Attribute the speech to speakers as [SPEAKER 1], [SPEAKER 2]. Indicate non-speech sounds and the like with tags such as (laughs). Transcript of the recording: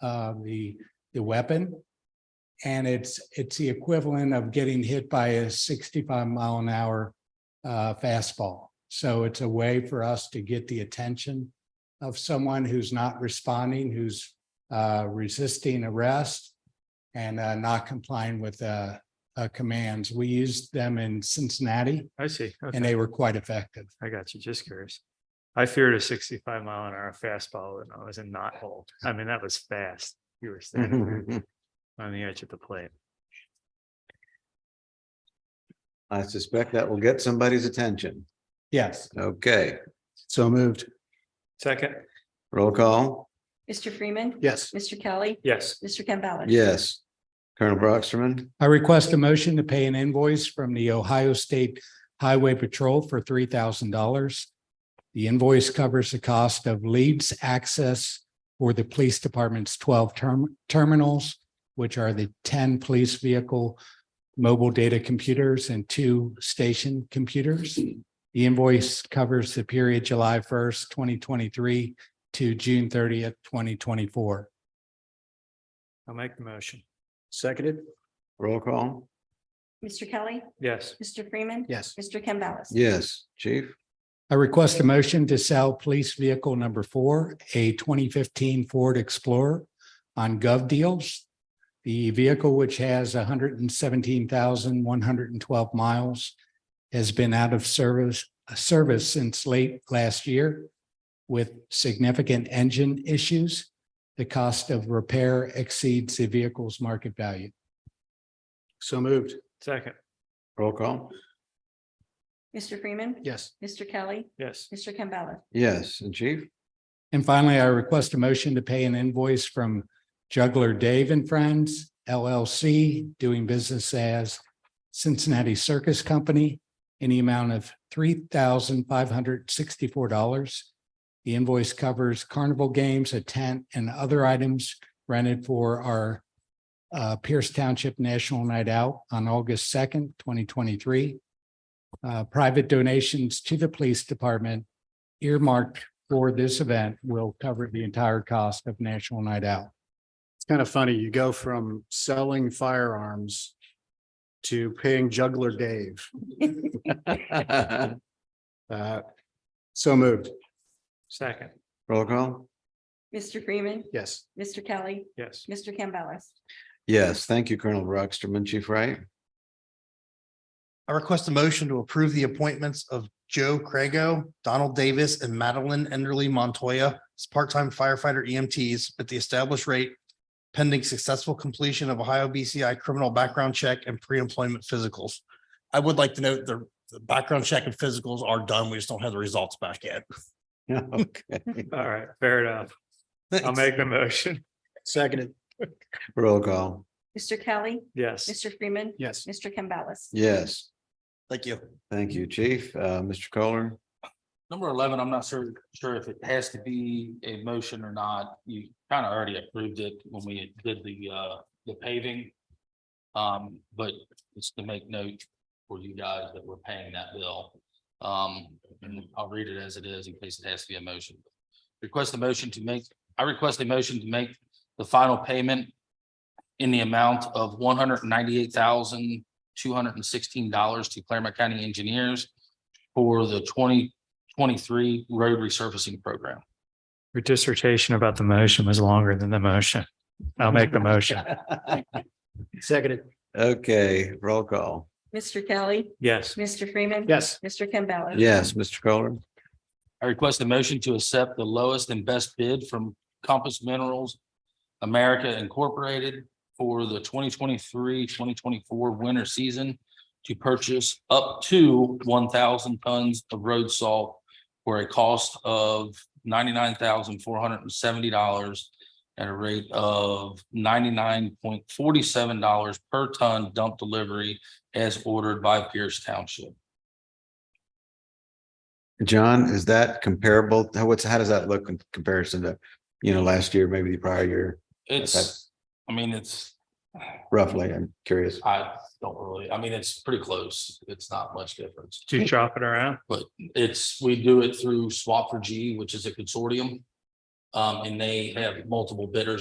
[SPEAKER 1] uh, the, the weapon. And it's, it's the equivalent of getting hit by a sixty-five mile an hour uh, fastball. So it's a way for us to get the attention of someone who's not responding, who's uh, resisting arrest and uh, not complying with uh, uh, commands. We used them in Cincinnati
[SPEAKER 2] I see.
[SPEAKER 1] and
[SPEAKER 2] Okay,
[SPEAKER 1] they were quite effective.
[SPEAKER 2] I got you. Just curious. I feared a sixty-five mile an hour fastball when I was in knot hole. I mean, that was fast. You
[SPEAKER 3] (laughs)
[SPEAKER 2] were standing there on the edge of the plate.
[SPEAKER 3] I suspect that will get somebody's attention.
[SPEAKER 1] Yes,
[SPEAKER 3] Okay,
[SPEAKER 1] so moved.
[SPEAKER 2] Second,
[SPEAKER 3] roll call.
[SPEAKER 4] Mr. Freeman.
[SPEAKER 1] Yes.
[SPEAKER 4] Mr. Kelly.
[SPEAKER 2] yes,
[SPEAKER 4] Mr. Campbell.
[SPEAKER 3] Yes. Colonel Brockstrom,
[SPEAKER 1] I request a motion to pay an invoice from the Ohio State Highway Patrol for three thousand dollars. The invoice covers the cost of leads access for the police department's twelve term terminals, which are the ten police vehicle mobile data computers and two station computers. The invoice covers the period July first, twenty twenty-three to June thirtieth, twenty twenty-four.
[SPEAKER 2] I'll make the motion.
[SPEAKER 1] Seconded.
[SPEAKER 3] roll call.
[SPEAKER 4] Mr. Kelly.
[SPEAKER 2] Yes,
[SPEAKER 4] Mr. Freeman.
[SPEAKER 1] Yes.
[SPEAKER 4] Mr. Campbell.
[SPEAKER 3] Yes, chief.
[SPEAKER 1] I request a motion to sell police vehicle number four, a twenty fifteen Ford Explorer on Gov Deals. The vehicle, which has hundred and seventeen thousand one hundred and twelve miles, has been out of service, service since late last year with significant engine issues. The cost of repair exceeds the vehicle's market value. So moved.
[SPEAKER 2] second,
[SPEAKER 3] Roll call.
[SPEAKER 4] Mr. Freeman.
[SPEAKER 1] Yes.
[SPEAKER 4] Mr. Kelly.
[SPEAKER 2] yes,
[SPEAKER 4] Mr. Campbell.
[SPEAKER 3] Yes, and chief. (laughs)
[SPEAKER 1] And finally, I request a motion to pay an invoice from Juggler Dave and Friends LLC, doing business as Cincinnati Circus Company, in the amount of three thousand five hundred sixty-four dollars. The invoice covers carnival games, a tent, and other items rented for our uh, Pierce Township National Night Out on August second, twenty twenty-three. Uh, Private donations to the police department earmarked for this event will cover the entire cost of National Night Out.
[SPEAKER 5] It's kind of funny, you go from selling firearms to paying juggler Dave.
[SPEAKER 3] Roll
[SPEAKER 5] Uh, So moved,
[SPEAKER 2] second,
[SPEAKER 3] call.
[SPEAKER 4] Mr. Freeman.
[SPEAKER 5] yes.
[SPEAKER 4] Mr. Kelly.
[SPEAKER 2] yes.
[SPEAKER 4] Mr. Campbell.
[SPEAKER 3] Yes, thank you, Colonel Brockstrom, Chief Wright. (laughs)
[SPEAKER 6] I request a motion to approve the appointments of Joe Crago, Donald Davis, and Madeline Enderly Montoya as part-time firefighter EMTs at the established rate pending successful completion of Ohio BCI criminal background check and pre-employment physicals. I would like to note the, the background check and physicals are done. We just don't have the results back yet.
[SPEAKER 3] Okay,
[SPEAKER 2] All right, fair enough. I'll make the motion.
[SPEAKER 5] Seconded.
[SPEAKER 3] roll call.
[SPEAKER 4] Mr. Kelly.
[SPEAKER 2] Yes,
[SPEAKER 4] Mr. Freeman.
[SPEAKER 5] Yes.
[SPEAKER 4] Mr. Campbell.
[SPEAKER 3] Yes,
[SPEAKER 6] Thank you.
[SPEAKER 3] thank you, chief. Uh, Mr. Kohler.
[SPEAKER 7] Number eleven, I'm not sure, sure if it has to be a motion or not. You kind of already approved it when we did the, uh, the paving. Um, but it's to make note for you guys that we're paying that bill. Um, and I'll read it as it is in case it has to be a motion. Request a motion to make, I request a motion to make the final payment in the amount of one hundred ninety-eight thousand, two hundred and sixteen dollars to Claremont County Engineers for the twenty twenty-three road resurfacing program.
[SPEAKER 2] your dissertation about the motion was longer than the motion. I'll make the motion.
[SPEAKER 5] Seconded.
[SPEAKER 3] Okay, roll call.
[SPEAKER 4] Mr. Kelly.
[SPEAKER 2] Yes,
[SPEAKER 4] Mr. Freeman.
[SPEAKER 5] Yes.
[SPEAKER 4] Mr. Campbell.
[SPEAKER 3] Yes, Mr. Kohler.
[SPEAKER 7] I request a motion to accept the lowest and best bid from Compass Minerals America Incorporated for the 2023-2024 winter season to purchase up to one thousand tons of road salt for a cost of ninety-nine thousand four hundred and seventy dollars at a rate of ninety-nine point forty-seven dollars per ton dump delivery as ordered by Pierce Township.
[SPEAKER 3] John, is that comparable? How, what's, how does that look in comparison to, you know, last year, maybe the prior year,
[SPEAKER 7] It's, I mean, it's
[SPEAKER 3] roughly? I'm curious.
[SPEAKER 7] I don't really, I mean, it's pretty close. It's not much difference.
[SPEAKER 2] do you chop it around?
[SPEAKER 7] It's, we do it through Swap for G, which is a consortium. Um, and they have multiple bidders